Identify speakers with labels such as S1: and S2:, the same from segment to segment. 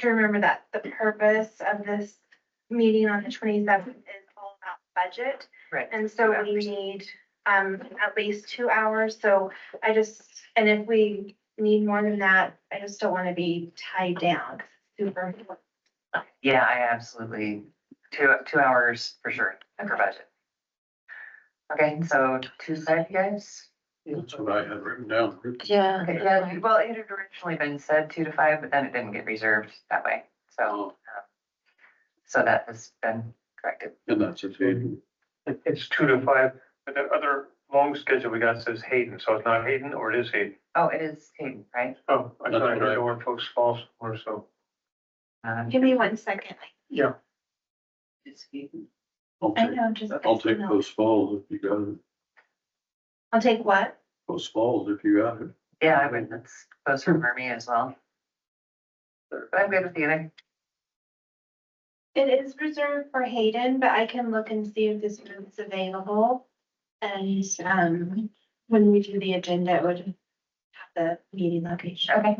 S1: to remember that the purpose of this meeting on the twenty-seventh is all about budget.
S2: Right.
S1: And so we need, um, at least two hours, so I just, and if we need more than that, I just don't wanna be tied down. Super,
S2: Yeah, I absolutely, two, two hours for sure, for budget. Okay, so Tuesday, you guys?
S3: That's what I had written down.
S4: Yeah.
S2: Okay, yeah, well, it had originally been said two to five, but then it didn't get reserved that way, so,
S3: Oh,
S2: so that has been corrected.
S3: And that's a table.
S5: It- It's two to five, but the other long schedule we got says Hayden, so it's not Hayden or it is Hayden?
S2: Oh, it is Hayden, right?
S5: Oh, I
S3: That's
S5: thought I
S3: what I-
S5: heard the one folks falls or so.
S2: Um,
S1: give me one second.
S5: Yeah.
S2: it's Hayden.
S3: I'll
S1: I
S3: take,
S1: know, just.
S3: I'll take post falls if you got it,
S1: I'll take what?
S3: post falls if you got it.
S2: Yeah, I would, that's closer for me as well. But I'm good with either.
S1: It is reserved for Hayden, but I can look and see if this room is available. And, um, when we do the agenda, it would have the meeting location.
S2: Okay.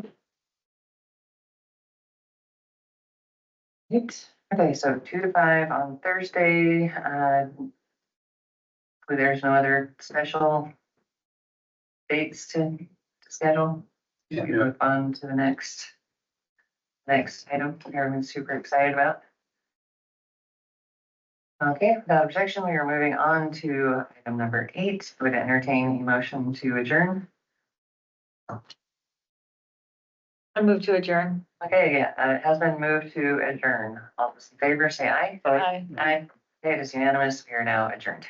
S2: Right. Okay, so two to five on Thursday, uh. hopefully There's no other special dates to to schedule. We can move on to the next. Next item, that everyone's super excited about. Okay, without objection, we are moving on to item number eight, would entertain a motion to adjourn.
S4: I move to adjourn.
S2: Okay, yeah, uh, it has been moved to adjourn. All those in favor, say aye.
S5: Aye.
S4: Aye.
S2: Aye. Okay, It is unanimous. We are now adjourned.